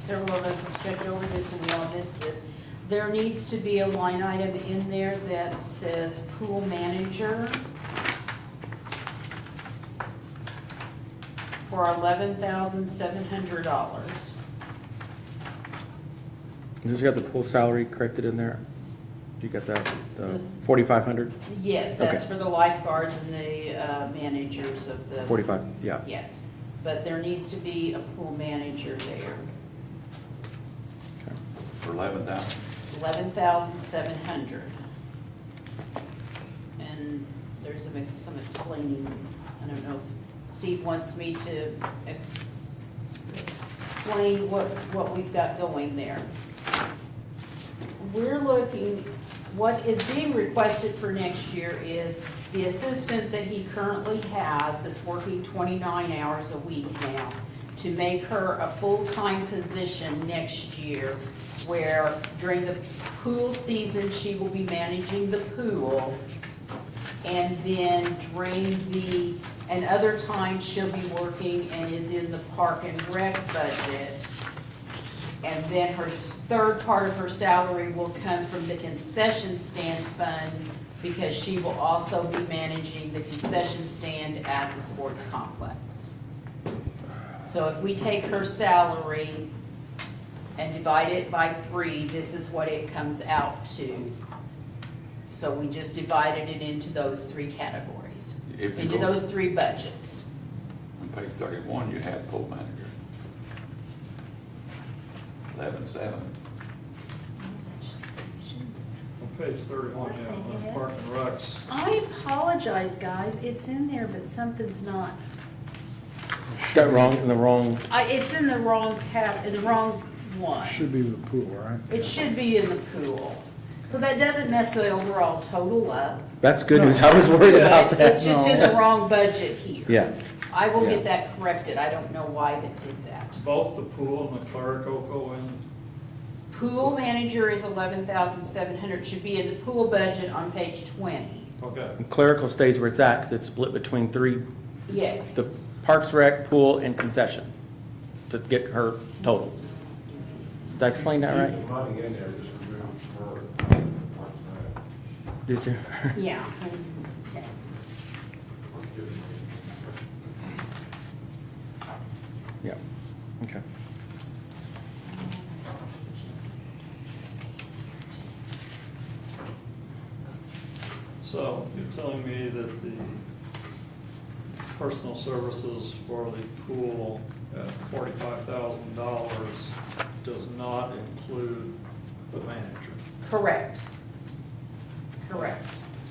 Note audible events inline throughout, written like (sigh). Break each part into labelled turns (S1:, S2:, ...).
S1: several of us have checked over this and we all missed this. There needs to be a line item in there that says pool manager for eleven thousand seven hundred dollars.
S2: You just got the pool salary corrected in there? You got that, the
S1: Yes.
S2: forty-five hundred?
S1: Yes, that's
S2: Okay.
S1: for the lifeguards and the uh, managers of the.
S2: Forty-five, yeah.
S1: Yes, but there needs to be a pool manager there,
S2: Okay.
S3: for eleven thousand.
S1: eleven thousand seven hundred. And there's some some explaining, I don't know, if Steve wants me to ex- explain what, what we've got going there. We're looking, what is being requested for next year is the assistant that he currently has, that's working twenty-nine hours a week now, to make her a full-time position next year, where during the pool season, she will be managing the pool. And then during the, and other times, she'll be working and is in the park and rec budget. And then her s- third part of her salary will come from the concession stand fund because she will also be managing the concession stand at the sports complex. So if we take her salary and divide it by three, this is what it comes out to. So we just divided it into those three categories,
S3: If you
S1: into
S3: go-
S1: those three budgets.
S3: On page thirty-one, you have pool manager. Eleven-seven.
S4: On page thirty-one, yeah, on Park and Recs,
S1: I apologize, guys, it's in there, but something's not,
S2: Got wrong, in the wrong,
S1: I, it's in the wrong cap, in the wrong one.
S5: Should be the pool, right?
S1: It should be in the pool. So that doesn't mess the overall total up.
S2: that's good news, I was worried about
S1: But
S2: that.
S1: It's just in the wrong budget here.
S2: Yeah,
S1: I will
S2: Yeah.
S1: get that corrected, I don't know why they did that.
S4: both the pool and the clerical go in,
S1: Pool manager is eleven thousand seven hundred, should be in the pool budget on page twenty.
S4: okay.
S2: clerical stays where it's at, because it's split between three,
S1: Yes.
S2: the Parks Rec, pool, and concession, to get her total. Did I explain that right?
S6: Money in there, just remove for,
S2: This year?
S1: Yeah. Okay.
S6: let's give it.
S2: (laughs) Yeah, okay.
S4: So you're telling me that the personal services for the pool at forty-five thousand dollars does not include the manager?
S1: Correct. Correct,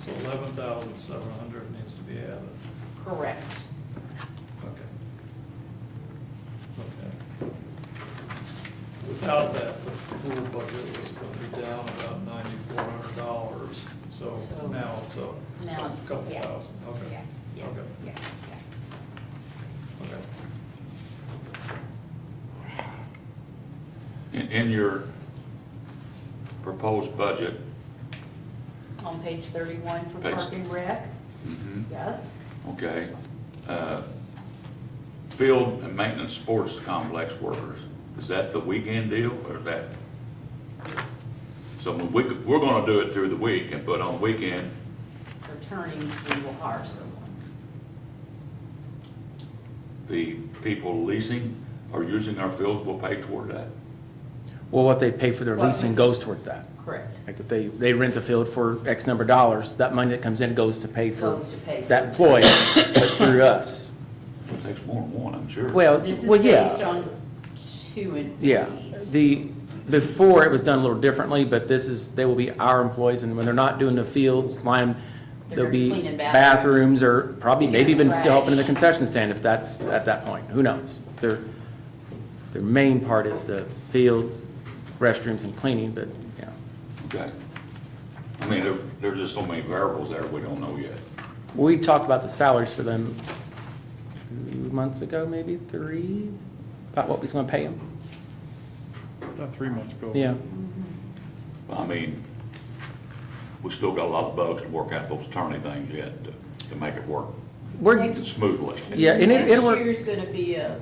S4: So eleven thousand seven hundred needs to be added,
S1: correct.
S4: okay. Okay. Without that, the pool budget was gonna be down about ninety-four hundred dollars, so
S1: So-
S4: now it's up a
S1: Now it's-
S4: couple
S1: yeah.
S4: thousand, okay,
S1: Yeah, yeah,
S4: Okay.
S1: yeah, yeah.
S4: okay.
S3: In, in your proposed budget,
S1: On page thirty-one for
S3: Page-
S1: Park and Rec,
S2: Mm-hmm.
S1: yes,
S3: okay, uh, field and maintenance sports complex workers, is that the weekend deal or is that? So we, we're gonna do it through the week and put on weekend,
S1: returning, we will hire someone.
S3: the people leasing or using our fields will pay toward that.
S2: Well, what they pay for their
S1: Well-
S2: leasing goes towards that.
S1: Correct.
S2: Like if they, they rent the field for X number of dollars, that money that comes in goes to pay for
S1: Goes to pay for-
S2: that employee, but through us.
S3: It takes more than one, I'm sure.
S2: Well,
S1: This is
S2: uh, well,
S1: based
S2: yeah,
S1: on two
S2: yeah.
S1: employees.
S2: The, before it was done a little differently, but this is, they will be our employees and when they're not doing the fields, lime,
S1: They're
S2: there'll be
S1: cleaning
S2: bathrooms or
S1: bathrooms,
S2: probably maybe
S1: picking
S2: even
S1: up
S2: still helping in the
S1: trash.
S2: concession stand if that's at that point, who knows? Their, their main part is the fields, restrooms and cleaning, but, yeah.
S3: Okay. I mean, there, there's just so many variables there we don't know yet.
S2: We talked about the salaries for them two months ago, maybe three, about what we was gonna pay them.
S5: About three months ago.
S2: Yeah,
S3: I mean, we still got a lot of bugs to work out those turning things yet to, to make it work
S2: we're,
S3: smoothly.
S2: yeah, and it,
S1: Next
S2: it'll work.
S1: year's gonna be a